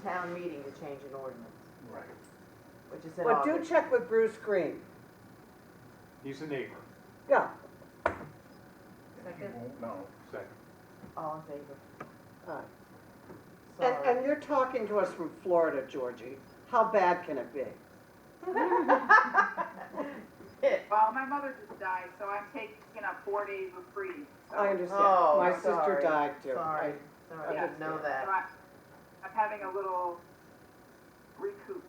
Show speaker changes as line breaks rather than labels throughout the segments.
town meeting to change an ordinance,
Right.
which is in
But do
August.
check with Bruce Green.
He's a neighbor.
Yeah,
You
Second.
won't know.
Second.
All in favor?
all right. And,
Sorry.
and you're talking to us from Florida, Georgie. How bad can it be?
Well, my mother just died, so I'm taking a four day reprieve. so-
I understand.
Oh,
My sister
sorry,
died too.
Sorry,
I-
sorry, I
Yeah.
didn't know
So
that.
I- I'm having a little recoup.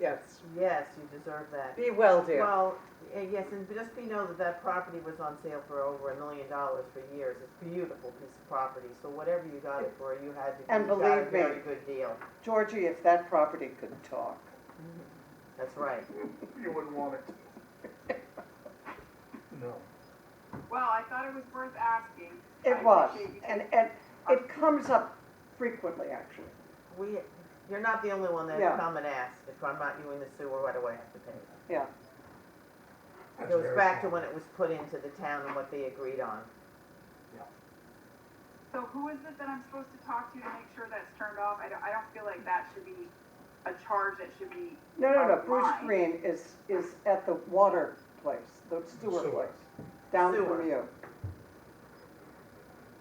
Yes.
Yes, you deserve that.
Be well, dear.
Well, eh, yes, and just be know that that property was on sale for over a million dollars for years. It's a beautiful piece of property, so whatever you got it for, you had to, you
And
got a
believe me.
very good deal.
Georgie, if that property could talk.
That's right.
You wouldn't want it. No.
Well, I thought it was worth asking. I
It was,
appreciate you
and, and it comes up frequently, actually.
We, you're not the only one
Yeah.
that come and ask, if I'm not you in the sewer, what do I have to pay? It
That's
goes
very
back to
small.
when it was put into the town and what they agreed on.
So who is it that I'm supposed to talk to to make sure that's turned off? I don't, I don't feel like that should be a charge that should be,
No, no, no,
Oh,
Bruce
my.
Green is, is at the water place, the sewer
Sewer.
place, down
Sewer.
from you.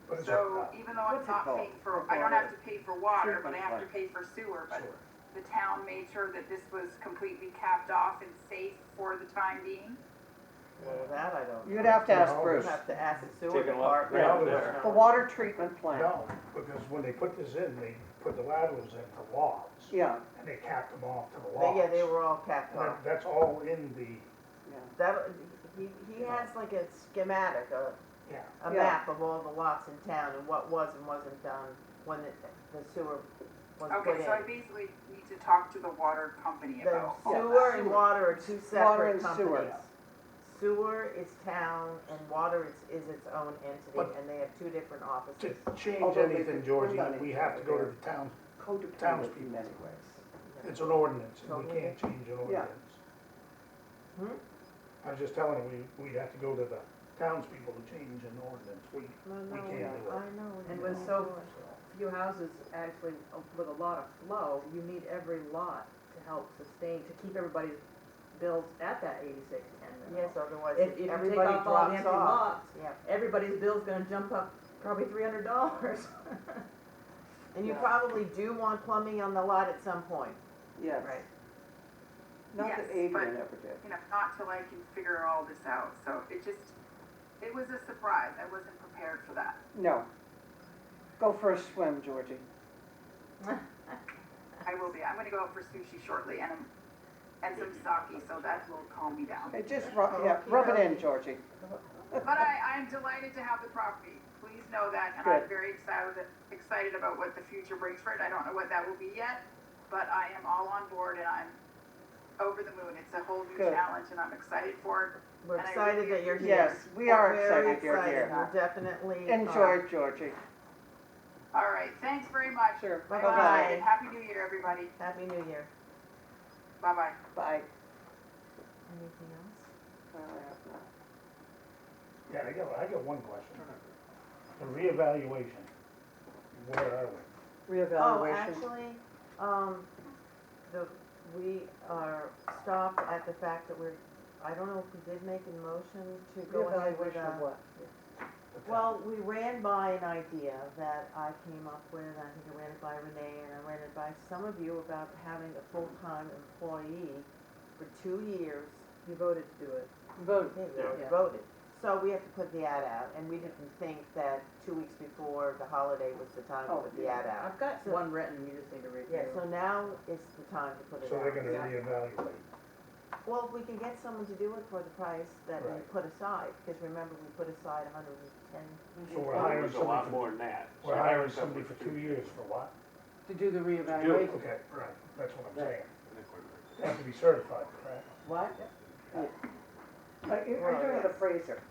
But it's
so
a-
even though I'm
What's it
not
called?
paying for, I don't have to pay for water, but I
Treatment
have to
plant.
pay for sewer, but
Sewer.
the town made sure that this was completely capped off and safe for the time being?
Well, that I don't.
You'd have to ask
No,
You
Bruce.
have to ask the sewer
Take a look
department.
down
or
there.
something.
The water treatment plant,
No, because when they put this in, they put the laterals in for logs,
yeah,
and they capped them off to the
They-
logs.
Yeah, they were all capped
And
off.
that- That's all in the,
yeah.
That, he, he has like a schematic, a
yeah,
a
Yeah.
map of all the lots in town and what was and wasn't done when the- the sewer was put
Okay, so I
in.
basically need to talk to the water company
The
about. all that.
sewer and water are two
Water
separate
and sewer.
companies. Sewer is town and water is, is its own entity
But-
and they have two different
to
offices.
change
Although they
anything,
could-
Georgie,
they're not
we have to go to
engineers.
the town,
Codependent
Townspeople.
in many ways.
it's an ordinance, and we
Totally.
can't change an ordinance.
Hmm?
I was just telling him, we, we'd have to go to the townspeople to change an ordinance, we,
No, no,
we can't do it.
I know.
And with
no.
so few houses actually with a lot of flow, you need every lot to help sustain, to keep everybody's bills at that eighty-six ten
Yes,
level.
otherwise
If, if you take
everybody
off all the
drops
empty
off.
lots,
Yeah,
everybody's bill's gonna jump up probably three hundred dollars.
and you
Yeah.
probably do want plumbing on the lot at some point.
Yes.
Right.
Not that
Yes, but-
Adrian ever did.
You know, not till I can figure all this out, so it just, it was a surprise, I wasn't prepared for that.
No. Go for a swim, Georgie.
I will be, I'm gonna go out for sushi shortly and, and some sake, so that will calm me down.
Hey, Just rub, yeah, rub it in, Georgie.
But I, I'm delighted to have the property, please know that, and I'm
Good.
very excited, excited about what the future brings for it, I don't know what that will be yet, but I am all on board and I'm over the moon, it's a whole new
Good.
challenge and I'm excited for it,
We're
And I
excited
really
that you're here.
Yes, we are
We're very
excited you're
excited.
here.
We're definitely. uh,
Enjoy, Georgie.
All right, thanks very much.
Sure.
I'm
Bye-bye.
excited. Happy New Year, everybody.
Happy New Year.
Bye-bye.
Bye.
Anything else?
Yeah, I got, I got one question. The reevaluation, where are we?
Oh,
Reevaluation.
actually, um, the, we are stopped at the fact that we're, I don't know if we did make a motion to go ahead with uh,
Reevaluation of
a.
what?
The town-
Well, we ran by an idea that I came up with, and I think I ran it by Renee and I ran it by some of you about having a full-time employee for two years. You voted to do it.
Vote.
Okay, we already
Yeah.
voted. So we have to put the ad out, and we didn't think that two weeks before the holiday was the time to
Oh,
put the ad out.
I've got
So-
one written, you just need to
Yeah,
review.
so now is the time to put it
So they're gonna
out.
reevaluate.
Well, if we can get someone to do it for the price that we
Right.
put aside, because remember, we put aside a hundred and ten.
So we're
Well, it
hiring
was a
somebody
lot
for-
more than that.
We're hiring somebody for two years for what?
To do the
reevaluation.
Okay, right, that's what I'm saying.
I think we're-
They have to be certified, correct?
What?
Are you, are you doing the Fraser?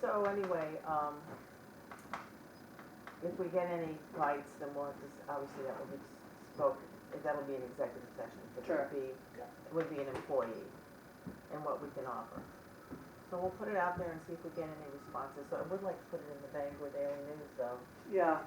So anyway, um, if we get any bites, then we'll have to, s- obviously that will be spoken, that'll be an executive session, but it
Sure.
would be, it would be an employee and what we can offer. So we'll put it out there and see if we get any responses, so I would like to put it in the Bangor Daily News though,
Yeah,